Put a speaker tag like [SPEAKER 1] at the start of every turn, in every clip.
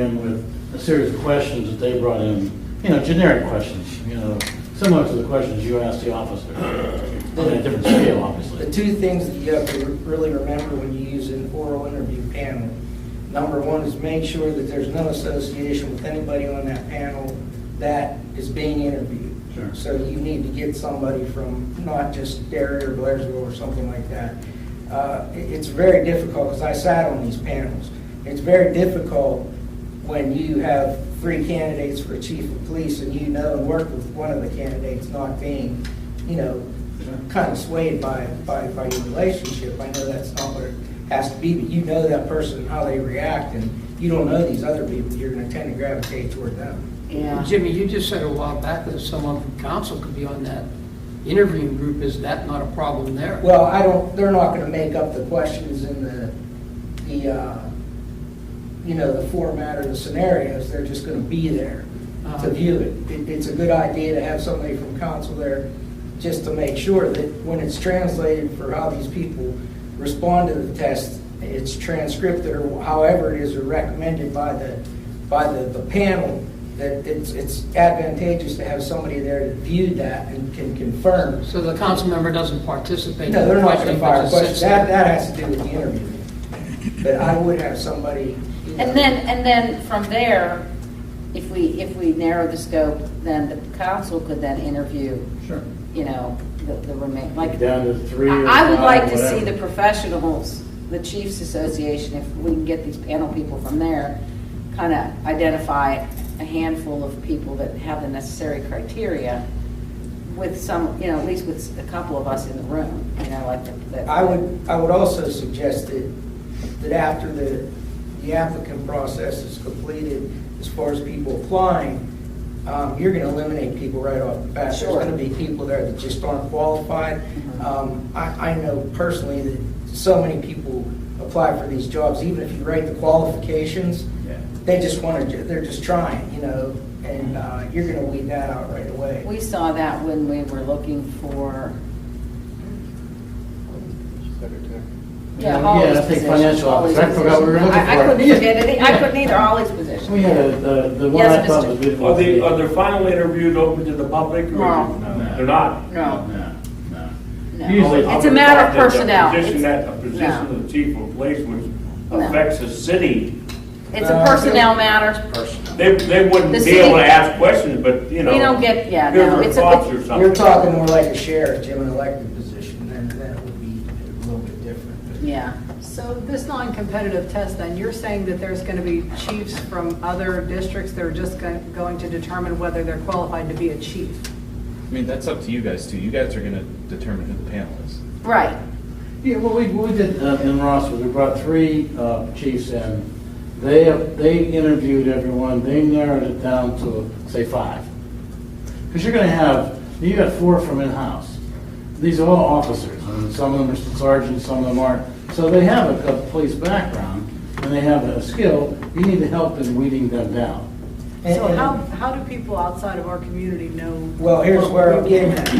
[SPEAKER 1] in with a series of questions that they brought in, you know, generic questions, you know, similar to the questions you asked the officer, on a different scale, obviously.
[SPEAKER 2] The two things that you have to really remember when you use an oral interview panel, number one is make sure that there's no association with anybody on that panel that is being interviewed.
[SPEAKER 1] Sure.
[SPEAKER 2] So you need to get somebody from not just Derry or Blairsville or something like that. Uh, it- It's very difficult, because I sat on these panels, it's very difficult when you have three candidates for chief of police and you know and work with one of the candidates not being, you know, kind of swayed by, by, by your relationship. I know that's not what it has to be, but you know that person, how they react, and you don't know these other people, you're gonna tend to gravitate toward them.
[SPEAKER 3] Yeah.
[SPEAKER 4] Jimmy, you just said a while back that someone from council could be on that interviewing group. Is that not a problem there?
[SPEAKER 2] Well, I don't, they're not gonna make up the questions in the, the, uh, you know, the format or the scenarios, they're just gonna be there
[SPEAKER 4] Uh-huh.
[SPEAKER 2] to view it. It, it's a good idea to have somebody from council there, just to make sure that when it's translated for how these people respond to the test, it's transcribed or however it is or recommended by the, by the, the panel, that it's, it's advantageous to have somebody there to view that and can confirm.
[SPEAKER 4] So the council member doesn't participate?
[SPEAKER 2] No, they're not going to
[SPEAKER 4] in
[SPEAKER 2] fire
[SPEAKER 4] the
[SPEAKER 2] questions.
[SPEAKER 4] question,
[SPEAKER 2] That,
[SPEAKER 4] but
[SPEAKER 2] that has to do with the interview. But I would have somebody. you know-
[SPEAKER 3] And then, and then from there, if we, if we narrow the scope, then the council could then interview,
[SPEAKER 1] Sure.
[SPEAKER 3] you know, the, the remain, like.
[SPEAKER 1] Down to three or
[SPEAKER 3] I I would
[SPEAKER 1] five,
[SPEAKER 3] like to see
[SPEAKER 1] whatever.
[SPEAKER 3] the professionals, the chiefs association, if we can get these panel people from there, kind of identify a handful of people that have the necessary criteria with some, you know, at least with a couple of us in the room, you know, like. the- the-
[SPEAKER 2] I would, I would also suggest that, that after the, the applicant process is completed, as far as people applying, um, you're gonna eliminate people right off the bat. There's
[SPEAKER 3] Sure.
[SPEAKER 2] gonna be people there that just aren't qualified.
[SPEAKER 3] Mhm.
[SPEAKER 2] Um, I, I know personally that so many people apply for these jobs, even if you write the qualifications,
[SPEAKER 1] Yeah.
[SPEAKER 2] they just wanna, ju- they're just trying, you know, and, uh, you're gonna weed that out right away.
[SPEAKER 3] We saw that when we were looking for, yeah,
[SPEAKER 1] Yeah,
[SPEAKER 3] Holly's
[SPEAKER 1] I think
[SPEAKER 3] position.
[SPEAKER 1] financial
[SPEAKER 3] Holly's
[SPEAKER 1] officer. I forgot what we were
[SPEAKER 3] position.
[SPEAKER 1] looking
[SPEAKER 3] I- I
[SPEAKER 1] for.
[SPEAKER 3] couldn't forget any, I
[SPEAKER 1] Yeah.
[SPEAKER 3] couldn't either, Holly's position.
[SPEAKER 1] We had a- the, the one
[SPEAKER 3] Yes,
[SPEAKER 1] I thought
[SPEAKER 3] Mr.
[SPEAKER 1] was good.
[SPEAKER 5] Are
[SPEAKER 1] was
[SPEAKER 5] the,
[SPEAKER 1] the-
[SPEAKER 5] are the final interviews open to the public? or-
[SPEAKER 3] No.
[SPEAKER 1] No.
[SPEAKER 5] They're not?
[SPEAKER 3] No,
[SPEAKER 1] No, no.
[SPEAKER 3] no.
[SPEAKER 1] Usually-
[SPEAKER 3] It's a matter of personnel.
[SPEAKER 5] A position
[SPEAKER 3] It's
[SPEAKER 5] that, a position
[SPEAKER 3] no.
[SPEAKER 5] of the chief of police which
[SPEAKER 3] No.
[SPEAKER 5] affects the city,
[SPEAKER 3] it's a
[SPEAKER 1] Uh,
[SPEAKER 3] personnel matter.
[SPEAKER 5] they, they wouldn't
[SPEAKER 3] The
[SPEAKER 5] be
[SPEAKER 3] city-
[SPEAKER 5] able to ask questions, but, you know.
[SPEAKER 3] We don't get- yeah,
[SPEAKER 5] here's
[SPEAKER 3] no,
[SPEAKER 5] our
[SPEAKER 3] it's a-
[SPEAKER 5] thoughts or
[SPEAKER 2] You're
[SPEAKER 5] something.
[SPEAKER 2] talking more like a sheriff, Jim, an elected position, then that would be a little bit different.
[SPEAKER 3] Yeah.
[SPEAKER 6] So this non-competitive test, then, you're saying that there's going to be chiefs from other districts that are just go- going to determine whether they're qualified to be a chief?
[SPEAKER 7] I mean, that's up to you guys too. You guys are gonna determine who the panel is.
[SPEAKER 3] Right.
[SPEAKER 1] Yeah, well, we, we did uh, in Rossville, we brought three uh, chiefs in. They, they interviewed everyone, they narrowed it down to, say, five. Because you're gonna have, you got four from in-house. These are all officers, and some of them are sergeants, some of them aren't. So they have a- a police background, and they have a skill, you need to help in weeding them down.
[SPEAKER 2] And-
[SPEAKER 6] So
[SPEAKER 2] and-
[SPEAKER 6] how, how do people outside of our community know?
[SPEAKER 2] Well, here's
[SPEAKER 6] what
[SPEAKER 2] where
[SPEAKER 6] we're
[SPEAKER 2] I'm getting at.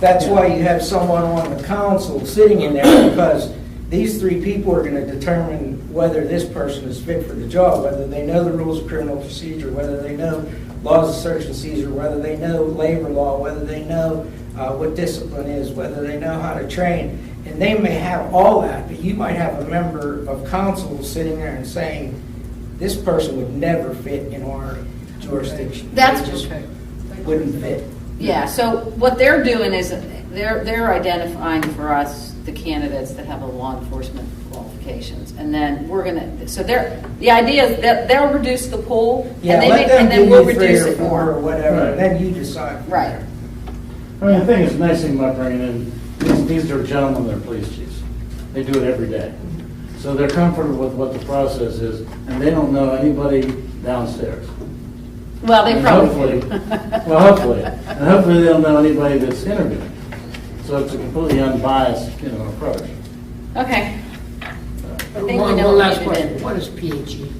[SPEAKER 2] That's why you have someone on the council sitting in there, because these three people are gonna determine whether this person is fit for the job, whether they know the rules of criminal procedure, whether they know laws of search and seizure, whether they know labor law, whether they know uh, what discipline is, whether they know how to train. And they may have all that, but you might have a member of council sitting there and saying, this person would never fit in our jurisdiction.
[SPEAKER 3] That's-
[SPEAKER 2] Just
[SPEAKER 6] Okay.
[SPEAKER 2] Wouldn't fit.
[SPEAKER 3] Yeah, so what they're doing is, they're, they're identifying for us the candidates that have a law enforcement qualifications. And then we're gonna, so they're, the idea is that they'll reduce the pool,
[SPEAKER 2] Yeah,
[SPEAKER 3] and they,
[SPEAKER 2] let
[SPEAKER 3] may-
[SPEAKER 2] them
[SPEAKER 3] and
[SPEAKER 2] give
[SPEAKER 3] then we'll
[SPEAKER 2] you three
[SPEAKER 3] reduce
[SPEAKER 2] or
[SPEAKER 3] it
[SPEAKER 2] four or
[SPEAKER 3] more.
[SPEAKER 2] whatever,
[SPEAKER 1] Right.
[SPEAKER 2] and then you decide. from
[SPEAKER 3] Right.
[SPEAKER 2] there.
[SPEAKER 1] I mean, the thing is, the nice thing about bringing in, these, these are gentlemen, they're police chiefs. They do it every day. So they're comfortable with what the process is, and they don't know anybody downstairs.
[SPEAKER 3] Well, they
[SPEAKER 1] And
[SPEAKER 3] probably.
[SPEAKER 1] hopefully- Well, hopefully, and hopefully they don't know anybody that's interviewing. So it's a completely unbiased, you know, approach.
[SPEAKER 3] Okay. I think we
[SPEAKER 4] One,
[SPEAKER 3] know what
[SPEAKER 4] one last
[SPEAKER 3] we
[SPEAKER 4] question.
[SPEAKER 3] did.
[SPEAKER 4] What is E? PHE?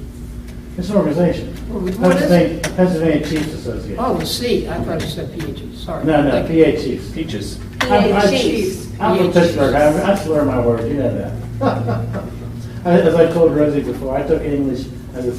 [SPEAKER 1] It's an organization.
[SPEAKER 4] What is
[SPEAKER 1] Pennsylvania- Pennsylvania Chiefs Association.
[SPEAKER 4] Oh, the C. I thought you said PHE, sorry.
[SPEAKER 1] No, no,
[SPEAKER 2] E
[SPEAKER 4] Thank you.
[SPEAKER 1] PA Chiefs.
[SPEAKER 7] Peaches.
[SPEAKER 1] I'm- I'm-
[SPEAKER 3] Chiefs.
[SPEAKER 1] I'm from
[SPEAKER 4] PA
[SPEAKER 1] Pittsburgh, I I swear my word, you know that. I- As I told Rosie before, I took English as a